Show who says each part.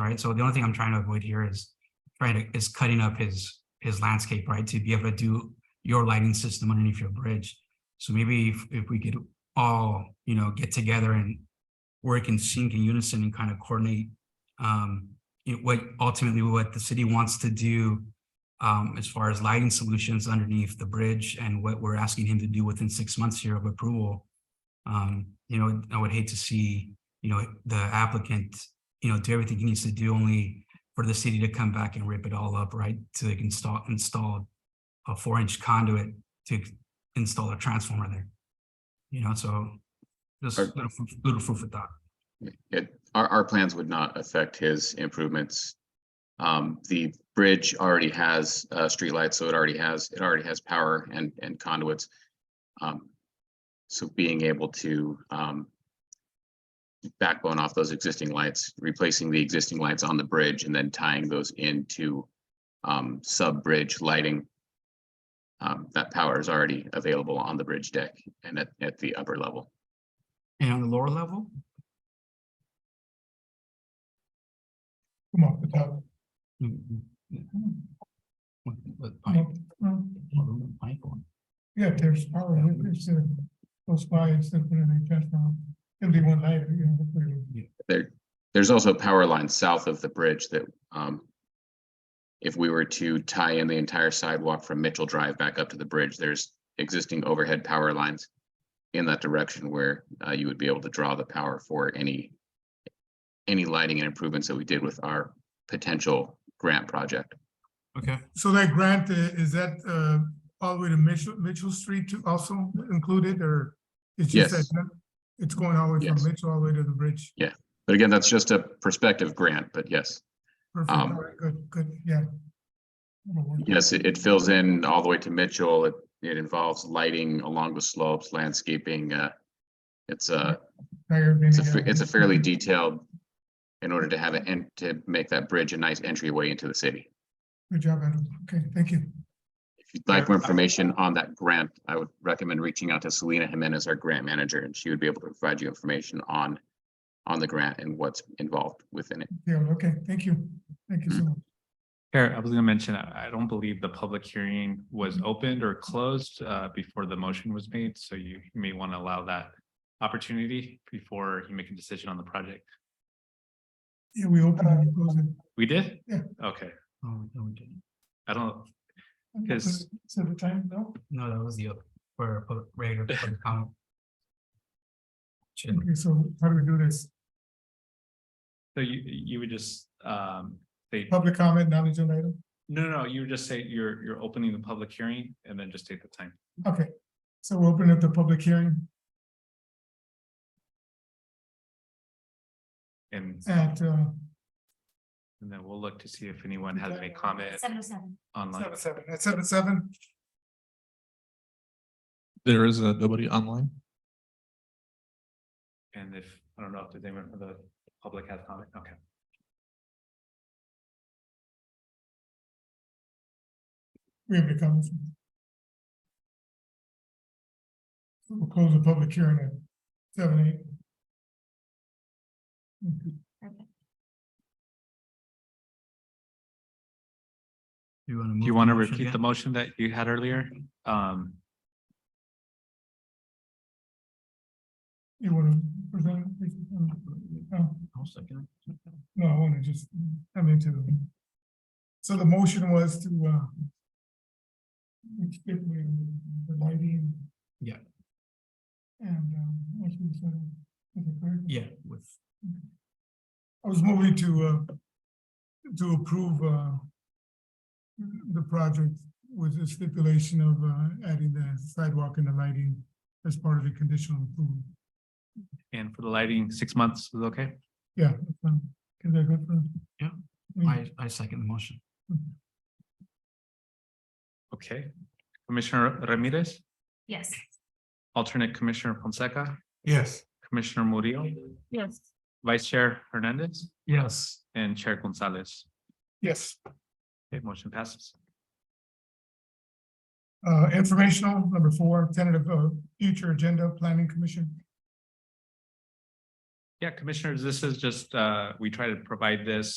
Speaker 1: right? So the only thing I'm trying to avoid here is trying to, is cutting up his, his landscape, right? To be able to do your lighting system underneath your bridge. So maybe if, if we could all, you know, get together and work in sync and unison and kind of coordinate um, you know, what ultimately what the city wants to do um, as far as lighting solutions underneath the bridge and what we're asking him to do within six months here of approval. Um, you know, I would hate to see, you know, the applicant, you know, do everything he needs to do only for the city to come back and rip it all up, right? To install, install a four-inch conduit to install a transformer there. You know, so just
Speaker 2: Are-
Speaker 1: little, food- little food for thought.
Speaker 2: It, our, our plans would not affect his improvements. Um, the bridge already has, uh, streetlights, so it already has, it already has power and, and conduits. Um, so being able to, um, backbone off those existing lights, replacing the existing lights on the bridge and then tying those into, um, sub-bridge lighting. Um, that power is already available on the bridge deck and at, at the upper level.
Speaker 1: And on the lower level,
Speaker 3: Come off the top.
Speaker 1: Mm, mm, mm. What- what
Speaker 3: come
Speaker 1: pipe?
Speaker 3: up, uh,
Speaker 1: What about pipe one?
Speaker 3: Yeah, if there's power, if it's uh, close by, instead of putting a transformer, it'll be one light, you know. hopefully.
Speaker 2: There, there's also power lines south of the bridge that, um, if we were to tie in the entire sidewalk from Mitchell Drive back up to the bridge, there's existing overhead power lines in that direction where, uh, you would be able to draw the power for any, any lighting and improvements that we did with our potential grant project.
Speaker 1: Okay,
Speaker 3: So that grant, uh, is that uh, all the way to Mitchell, Mitchell Street to also included, or? it's just
Speaker 2: Yes.
Speaker 3: that It's going all the way
Speaker 2: Yes.
Speaker 3: from Mitchell all the way to the bridge.
Speaker 2: But again, that's just a prospective grant, but yes,
Speaker 3: Perfect,
Speaker 2: Um,
Speaker 3: all right, good, good, yeah. That'll work.
Speaker 2: yes, it, it fills in all the way to Mitchell. It, it involves lighting along the slopes, landscaping, uh, it's uh, a,
Speaker 3: Higher than
Speaker 2: It's a,
Speaker 3: the
Speaker 2: fa-
Speaker 3: other.
Speaker 2: it's a fairly detailed, in order to have it, and to make that bridge a nice entryway into the city.
Speaker 3: Good job, Adam, okay, thank you.
Speaker 2: If you'd like more information on that grant, I would recommend reaching out to Selena Jimenez, our grant manager, and she would be able to provide you information on, on the grant and what's involved within it.
Speaker 3: Yeah, okay, thank you, thank
Speaker 2: Mm.
Speaker 3: you so much.
Speaker 4: Here, I was gonna mention, I I don't believe the public hearing was
Speaker 3: Mm-hmm.
Speaker 4: opened or closed uh before the motion was made, so you may want to allow that opportunity before you make a decision on the project.
Speaker 3: Yeah, we open it and close it.
Speaker 4: We did?
Speaker 3: Yeah.
Speaker 4: Okay,
Speaker 1: oh, no, we didn't.
Speaker 4: I don't, Yes.
Speaker 3: So the time, no?
Speaker 1: No, that was the other, for, for regular public comment. Should-
Speaker 3: Okay, so how do we do this?
Speaker 4: so you you would just um say,
Speaker 3: Public comment, non-agenda item?
Speaker 4: no, no, no, you would just say you're you're opening the public hearing and then just take the time.
Speaker 3: Okay, so we'll open up the public hearing
Speaker 4: And
Speaker 3: at uh
Speaker 4: and then we'll look to see if anyone has any
Speaker 3: Okay.
Speaker 4: comment
Speaker 5: Seven oh seven.
Speaker 4: online.
Speaker 3: seven, seven, at seven, seven.
Speaker 6: There is uh, nobody online.
Speaker 4: And if, I don't know if there's anyone from the public has comment, okay.
Speaker 3: We have any comments? We'll close the public hearing at seven, eight. Okay,
Speaker 1: Do you want to?
Speaker 4: Do you want to repeat the motion that you had earlier? Um,
Speaker 3: You want to present? it, please? Um, no. No, I want to just come into the. So the motion was to, uh. skip with The lighting.
Speaker 1: Yeah.
Speaker 3: And, um, what you said. is it correct?
Speaker 1: Yeah, with,
Speaker 3: I was moving to, uh, to approve, uh. The project with the stipulation of, uh, adding the sidewalk and the lighting as part of the conditional approval.
Speaker 4: and for the lighting, six months is okay?
Speaker 3: Yeah. that's fine. Is that good for?
Speaker 1: Yeah.
Speaker 3: Mm.
Speaker 1: I, I second the motion.
Speaker 4: Okay. Commissioner Ramirez,
Speaker 5: Yes.
Speaker 4: alternate Commissioner Fonseca,
Speaker 3: Yes.
Speaker 4: Commissioner Murillo,
Speaker 5: Yes.
Speaker 4: Vice Chair Hernandez,
Speaker 1: Yes.
Speaker 4: and Chair Gonzalez.
Speaker 3: Yes.
Speaker 4: Okay, motion passes.
Speaker 3: Uh, informational, number four, tentative of future agenda, planning commission.
Speaker 4: Yeah, commissioners, this is just, uh, we try to provide this